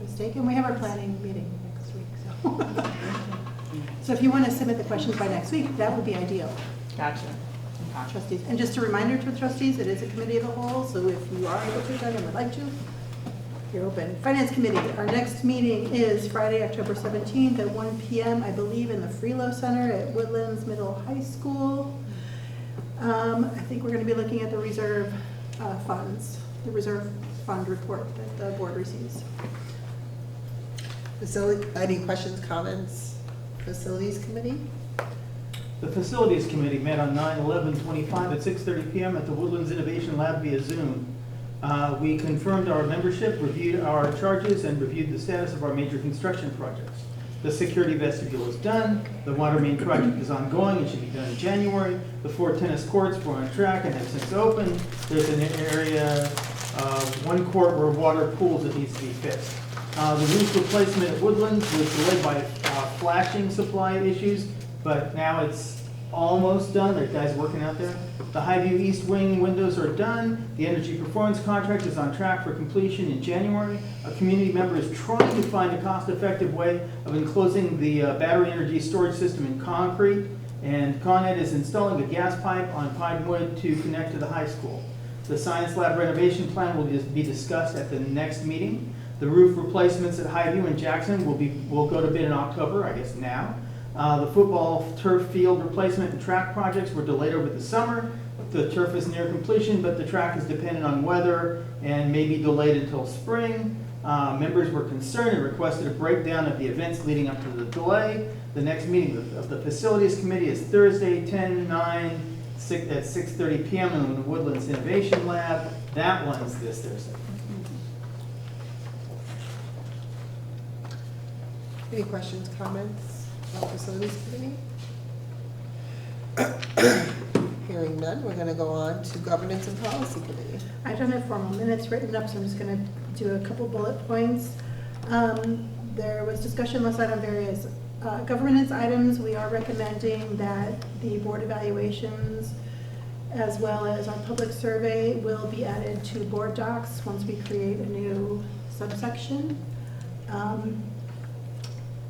mistaken. We have our planning meeting next week, so. So if you want to submit the questions by next week, that would be ideal, Gotcha. Okay. trustees. And just a reminder to the trustees, it is a committee of the whole, so if you are able to, Doug, and would like to, you're open. Finance Committee, our next meeting is Friday, October 17th at 1 PM, I believe, in the Freelo Center at Woodlands Middle High School. Um, I think we're going to be looking at the reserve uh, funds, the reserve fund report that the board receives. Facility, any questions, comments, facilities committee? The Facilities Committee met on 9/11/25 at 6:30 PM at the Woodlands Innovation Lab via Zoom. Uh, We confirmed our membership, reviewed our charges, and reviewed the status of our major construction projects. The security vestibule is done, the water main project is ongoing, it should be done in January. The four tennis courts were on track and have since opened. There's an area, uh, one court where water pools that needs to be fixed. Uh, The roof replacement at Woodlands was delayed by uh, flashing supply issues, but now it's almost done. There are guys working out there. The Highview East Wing windows are done. The energy performance contract is on track for completion in January. A community member is trying to find a cost-effective way of enclosing the uh, battery energy storage system in concrete. And Con Ed is installing a gas pipe on Pinewood to connect to the high school. The science lab renovation plan will just be discussed at the next meeting. The roof replacements at Highview and Jackson will be, will go to bid in October, I guess now. Uh, The football turf field replacement and track projects were delayed over the summer. The turf is near completion, but the track is dependent on weather and may be delayed until spring. Uh, Members were concerned and requested a breakdown of the events leading up to the delay. The next meeting of- of the Facilities Committee is Thursday, 10/9, six- at 6:30 PM in the Woodlands Innovation Lab. That one's this Thursday. Any questions, comments about facilities committee? Hearing none, we're gonna go on to governance and policy committee. I don't have formal minutes written up, so I'm just going to do a couple bullet points. Um, There was discussion last night on various uh, governance items. We are recommending that the board evaluations, as well as our public survey, will be added to board docs once we create a new subsection. Um,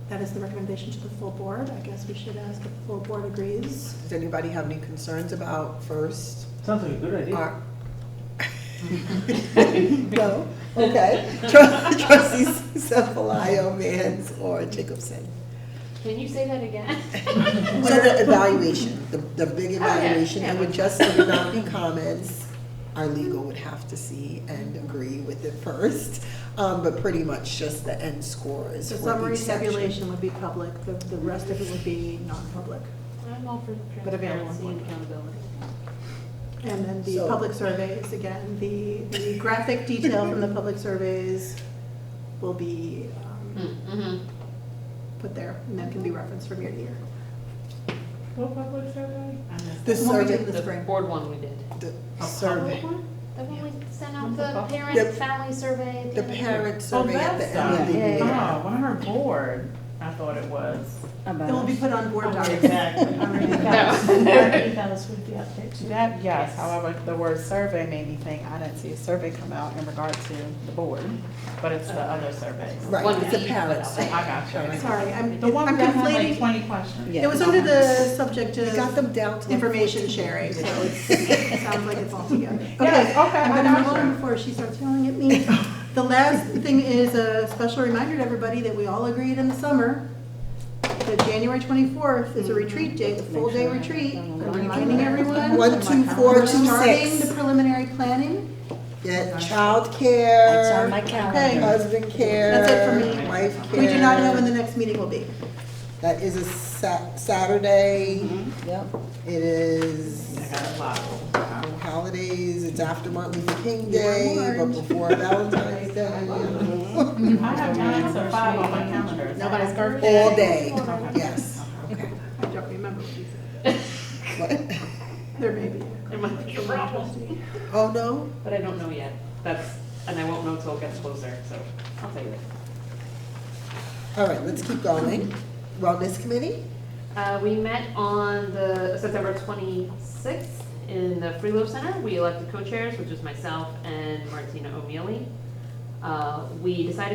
That is the recommendation to the full board. I guess we should ask if the full board agrees. Does anybody have any concerns about first? Sounds like a good idea. our- No, okay. Tru- Trustees Cephalio, Mans, or Jacobson? Can you say that again? So the evaluation, the, the Oh, big yeah, evaluation, it yeah. would just, it would not be comments. Our legal would have to see and agree with it first, um, but pretty much just the end scores The for summary each section. tabulation would be public, the the rest of it would be non-public. I'm all for But available transparency one. and accountability. And then the So- public surveys, again, the, the graphic detail from the public surveys will be um, Mm-hmm. put there, and that can be referenced from year to year. What public survey? I missed The that. The one we survey- did in the The spring. board one we did. The Oh, A survey, public one? The one we sent out Not the the bu- The- parent family survey. at the end of- parent Oh, survey at that the end of stuff. the Yeah, year. Oh, yeah. Our board, I thought it was. It will be put on board docs. Exactly. On our- That, yes, however, the word survey made me think, I didn't see a survey come out in regard to the board, but it's the other surveys. One Right, it's a we parent put I survey. got you. Sorry, I'm, The one I'm that had like conflating. twenty questions. It was under the subject We got of them down to. like information 14. sharing, so it's- it sounds like it's all together. Yes, okay, I I'm gonna got move you. on before she starts yelling at me. The last thing is a special reminder to everybody that we all agreed in the summer that January 24th is a retreat day, the full day retreat. I'm reminding everyone. One, two, four, We're two, starting six. the preliminary planning. Yeah, childcare. Okay, Husband care. That's it for me. Wife care. we do not know when the next meeting will be. That is a Sa- Saturday. It is I got a lot. holidays, it's after Martin Luther King You were Day, but warned. before Valentine's Day. I have nine to five on my calendar. Is that Nobody's accurate? All day, yes. I don't remember what you said. What? There may be. There might be a problem, Oh, no? but I don't know yet. That's, and I won't know till it gets closer, so I'll tell you later. All right, let's keep going. Wellness Committee? Uh, we met on the September twenty-sixth in the Freelo Center. We elected co-chairs, which is myself and Martina O'Mealy. Uh, we decided